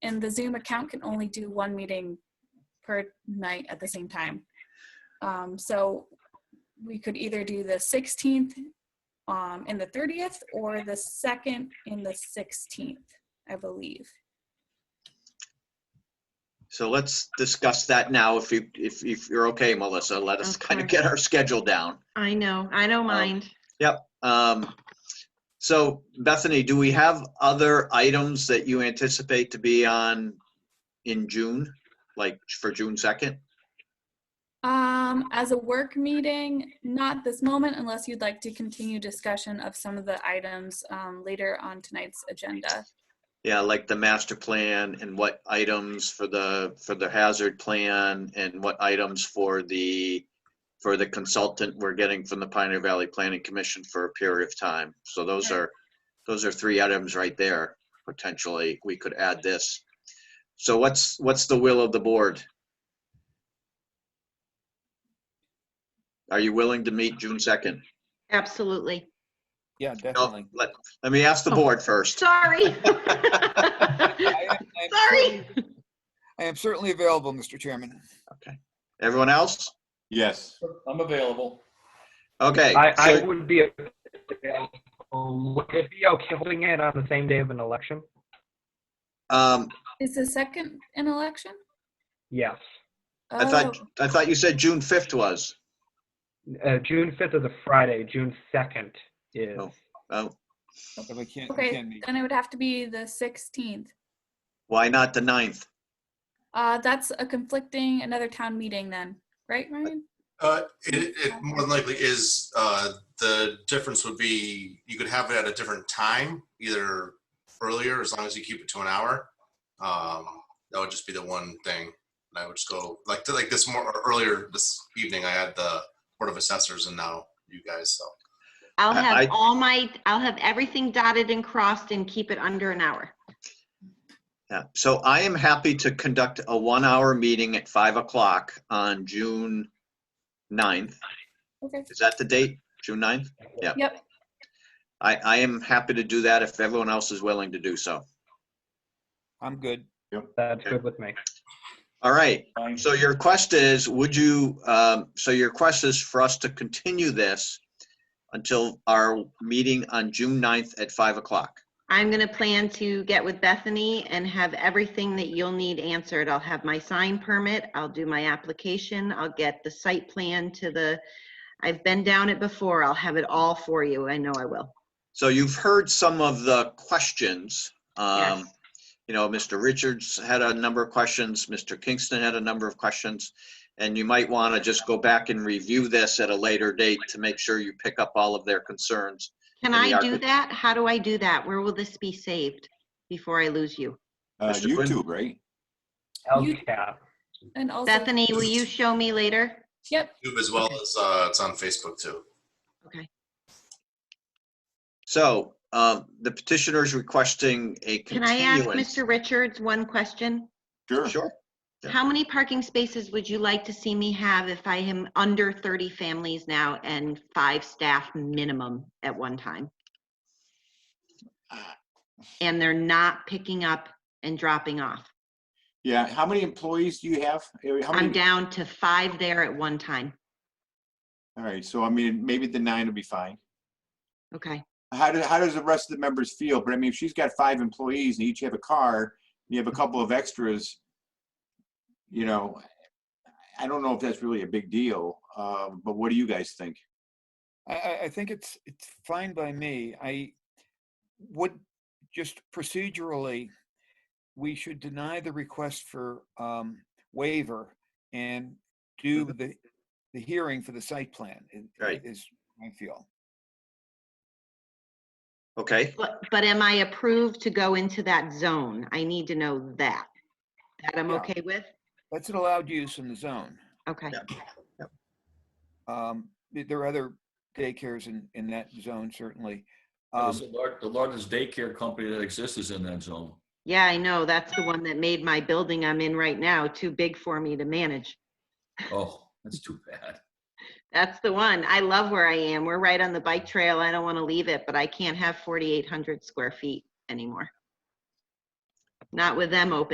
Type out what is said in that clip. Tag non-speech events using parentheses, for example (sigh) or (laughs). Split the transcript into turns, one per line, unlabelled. and the Zoom account can only do one meeting per night at the same time. Um, so we could either do the 16th um, and the 30th or the 2nd and the 16th, I believe.
So let's discuss that now. If you, if, if you're okay, Melissa, let us
Of
kind of
course.
get our schedule down.
I know, I don't mind.
Um, so Bethany, do we have other items that you anticipate to be on in June? Like for June second?
Um, as a work meeting, not this moment unless you'd like to continue discussion of some of the items um, later on tonight's agenda.
Yeah, like the master plan and what items for the, for the hazard plan and what items for the, for the consultant we're getting from the Pioneer Valley Planning Commission for a period of time. So those are, those are three items right there, potentially. We could add this. So what's, what's the will of the board? Are you willing to meet June 2nd?
(laughs)
Absolutely.
Yeah,
No,
definitely.
let, let me ask the board first.
Sorry.
I am- I am
Sorry.
I am certainly available, Mr. Chairman.
Everyone else?
Yes.
I'm available.
Okay.
I,
so-
I would be, um, would it be okay holding it on the same day of an election?
Um,
Is the second an election?
Yes.
I thought,
Oh,
I thought you said June 5th was.
Uh, June 5th is a Friday, June 2nd is,
Oh. Oh,
If I can't, I
Okay,
can't meet.
Oh, then it would have to be the 16th.
why not the 9th?
Uh, that's a conflicting, another town meeting then, right, Ryan?
Uh, it, it more than likely is, uh, the difference would be, you could have it at a different time, either earlier, as long as you keep it to an hour. Um, that would just be the one thing. And I would just go, like, like this more, or earlier this evening, I had the Board of Assessors and now you guys, so.
I'll
I- I-
have all my, I'll have everything dotted and crossed and keep it under an hour.
Yeah, so I am happy to conduct a one-hour meeting at 5 o'clock on June 9th.
Okay,
Is that the date, June 9th? Yeah.
Yep.
I, I am happy to do that if everyone else is willing to do so.
I'm good.
that's good with me.
All right,
Fine.
so your request is, would you, um, so your request is for us to continue this until our meeting on June 9th at 5 o'clock?
I'm gonna plan to get with Bethany and have everything that you'll need answered. I'll have my sign permit, I'll do my application, I'll get the site plan to the, I've been down it before, I'll have it all for you, I know I will.
So you've heard some of the questions. Um,
Yes.
You know, Mr. Richards had a number of questions, Mr. Kingston had a number of questions. And you might want to just go back and review this at a later date to make sure you pick up all of their concerns.
Can
And the
I do
archi-
that? How do I do that? Where will this be saved before I lose you?
Uh,
Mr. Quinn?
YouTube, right?
You-
LCAP.
and also.
Bethany, will you show me later?
Yep,
YouTube as well as, uh, it's on Facebook too.
Okay.
So um, the petitioner is requesting a
Can I ask
continuance.
Mr. Richards one question?
Sure. Yeah.
How many parking spaces would you like to see me have if I am under 30 families now and five staff minimum at one time? And they're not picking up and dropping off.
Yeah, how many employees do you have? Uh, How
I'm
many?
down to five there at one time.
All right, so I mean, maybe the nine will be fine.
Okay,
How do, how does the rest of the members feel? But I mean, if she's got five employees and each have a car, you have a couple of extras, you know, I don't know if that's really a big deal, uh, but what do you guys think?
I, I, I think it's, it's fine by me. I would, just procedurally, we should deny the request for, um, waiver and do the, the hearing for the site plan. i- i-
Right.
Is, my feel.
Okay,
but, but am I approved to go into that zone? I need to know that. That I'm
Yeah.
okay with?
That's an allowed use in the zone.
Okay,
Um, th- there are other daycares in, in that zone, certainly. Um,
There's a lar- The largest daycare company that exists is in that zone.
yeah, I know, that's the one that made my building I'm in right now too big for me to manage.
Oh, that's too bad.
That's the one. I love where I am. We're right on the bike trail. I don't want to leave it, but I can't have 4,800 square feet anymore. Not with them open.